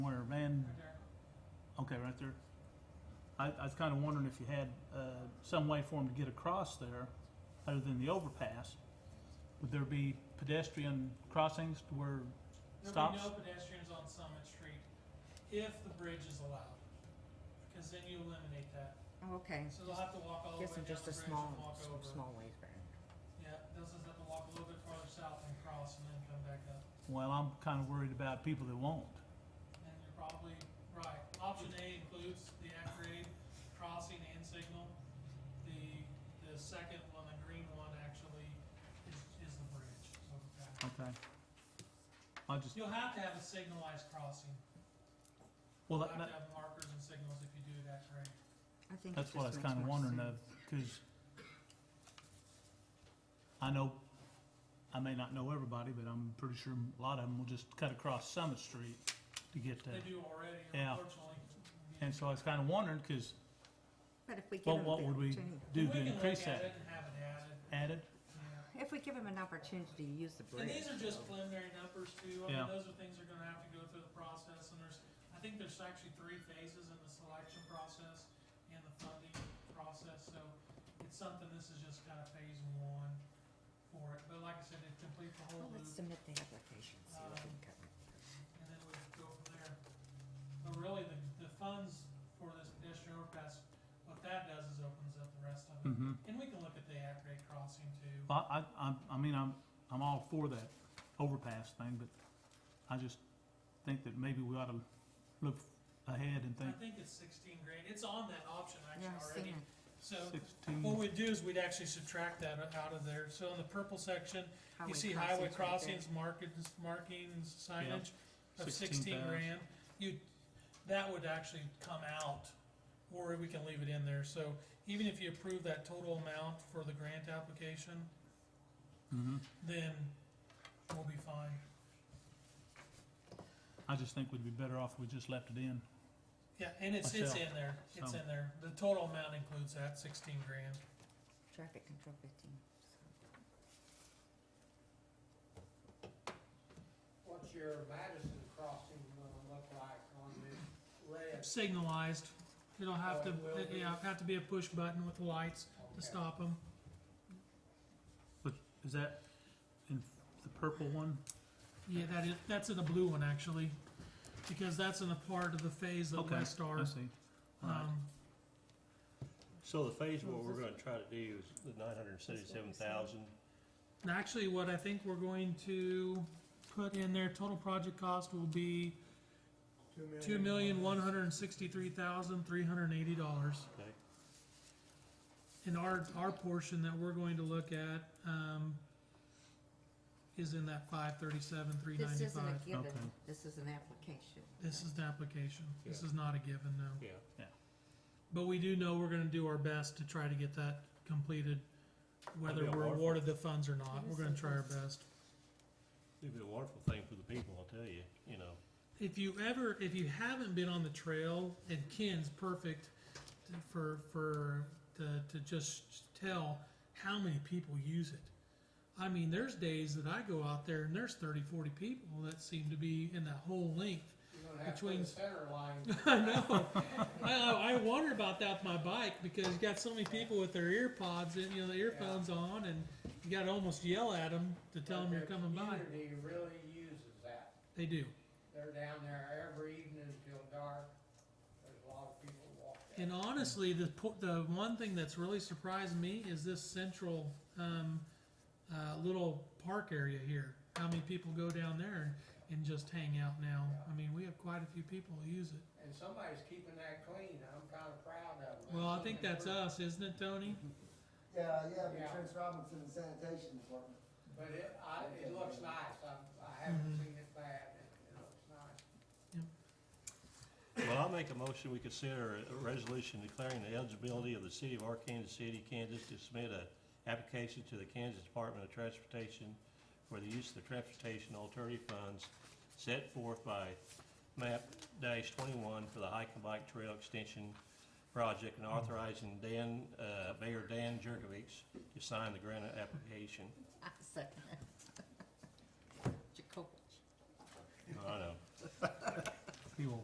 right there. I, I was kinda wondering if you had, uh, some way for them to get across there, other than the overpass. Would there be pedestrian crossings to where, There'll be Stops. no pedestrians on Summit Street if the bridge is allowed, because then you eliminate that. Oh, okay. So they'll have to walk all the way Guess down I'm the just a bridge and small, walk s- over. small ways back. Yeah, they'll just have to walk a little bit farther south and cross and then come back up. well, I'm kinda worried about people that won't. And you're probably right. Option A includes the at-grade crossing and signal. The, the second one, the green one, actually is, is the bridge overpass. Okay. I just, You'll have to have a signalized crossing. well, You'll that, have that, to have markers and signals if you do it at grade. I think it That's what I was just makes kinda more wondering of, sense. cause I know, I may not know everybody, but I'm pretty sure a lot of them will just cut across Summit Street to get there. They do already, Yeah. unfortunately. And so I was kinda wondering, cause But if we give Well, them the what would we opportunity, do to increase We can look at that, it and have it added, added, yeah. if we give them an opportunity to use the And bridge. these are just preliminary numbers too, I Yeah. mean, those are things that are gonna have to go through the process, and there's, I think there's actually three phases in the selection process and the funding process, so it's something, this is just kinda phase one for it, but like I said, it completes the Well, whole Oh, let's loop, submit the application, see what we can cover. Uh, and then we go from there. But really, the, the funds for this pedestrian overpass, what that does is opens up the rest of it, mm-hmm. and we can look at the at-grade crossing too. I, I, I, I mean, I'm, I'm all for that overpass thing, but I just think that maybe we ought to look ahead and I think think it's sixteen grand, it's on that option actually Yeah, I've already, seen it. so what sixteen, we'd do is we'd actually subtract that out of there, so in the purple section, you Highway see highway crossings, crossings markings, markings, signage 16,000. of sixteen grand. You, that would actually come out, or we can leave it in there, so even if you approve that total amount for the grant application, mm-hmm. then we'll be fine. I just think we'd be better off if we just left it in. Yeah, and it's, it's Myself, in there, it's so. in there, the total amount includes that sixteen grand. there. Traffic control fifteen. so. What's your Madison crossing gonna look like on this list? signalized. It'll have Oh, to, it will it- be. yeah, have to be a push button with lights to Okay. stop them. Is that in the purple one? Yeah, that is, that's in the blue one actually, because that's in the part of the phase that Okay, West I are. see. All right. Um, So the phase, what we're gonna try to do is the nine hundred and seventy-seven thousand, and actually what I think we're going to put in there, total project cost will be two million, one hundred and sixty-three thousand, three hundred and eighty dollars. okay? And our, our portion that we're going to look at, um, is in that five thirty-seven, three ninety-five. This isn't a given, Okay. this is an application. This is the application. This Yeah. is not a given, no. Yeah. But we do know we're gonna do our best to try to get that completed, whether That'd be we're awful. awarded the funds or not. We're gonna try our best. It'd be a wonderful thing for the people, I'll tell you, you know. If you ever, if you haven't been on the trail, and Ken's perfect to- for, for, to, to just tell how many people use it. I mean, there's days that I go out there and there's thirty, forty people that seem to be in that whole length. You're gonna have to put between- a center line. I know. I, I, I wonder about that with my bike because you got so many people with their ear pods and you know the earphones on, and you got to almost yell at them to tell them But you're coming by. The community really uses that. They do, They're down there every evening until dark. There's a lot of people walk that. and honestly, the po- the one thing that's really surprised me is this central um, uh, little park area here. How many people go down there and, and just hang out now? I mean, we have quite a few people who use it. And somebody's keeping that clean. I'm kinda proud of them. Well, I think that's us, isn't it, Tony? Yeah, yeah, but Yeah. Trent Robinson and sanitation department. But it, I, it looks nice. I, I haven't Mm-hmm. seen it bad. It, it looks nice. Well, I'll make a motion, we consider a resolution declaring the eligibility of the city of Arkansas City, Kansas to submit a application to the Kansas Department of Transportation for the use of the transportation alternative funds set forth by map dash twenty-one for the hike and bike trail extension project and authorizing Dan, uh, Mayor Dan Jurgovich to sign the grant application. I second it. Jacobich. I know.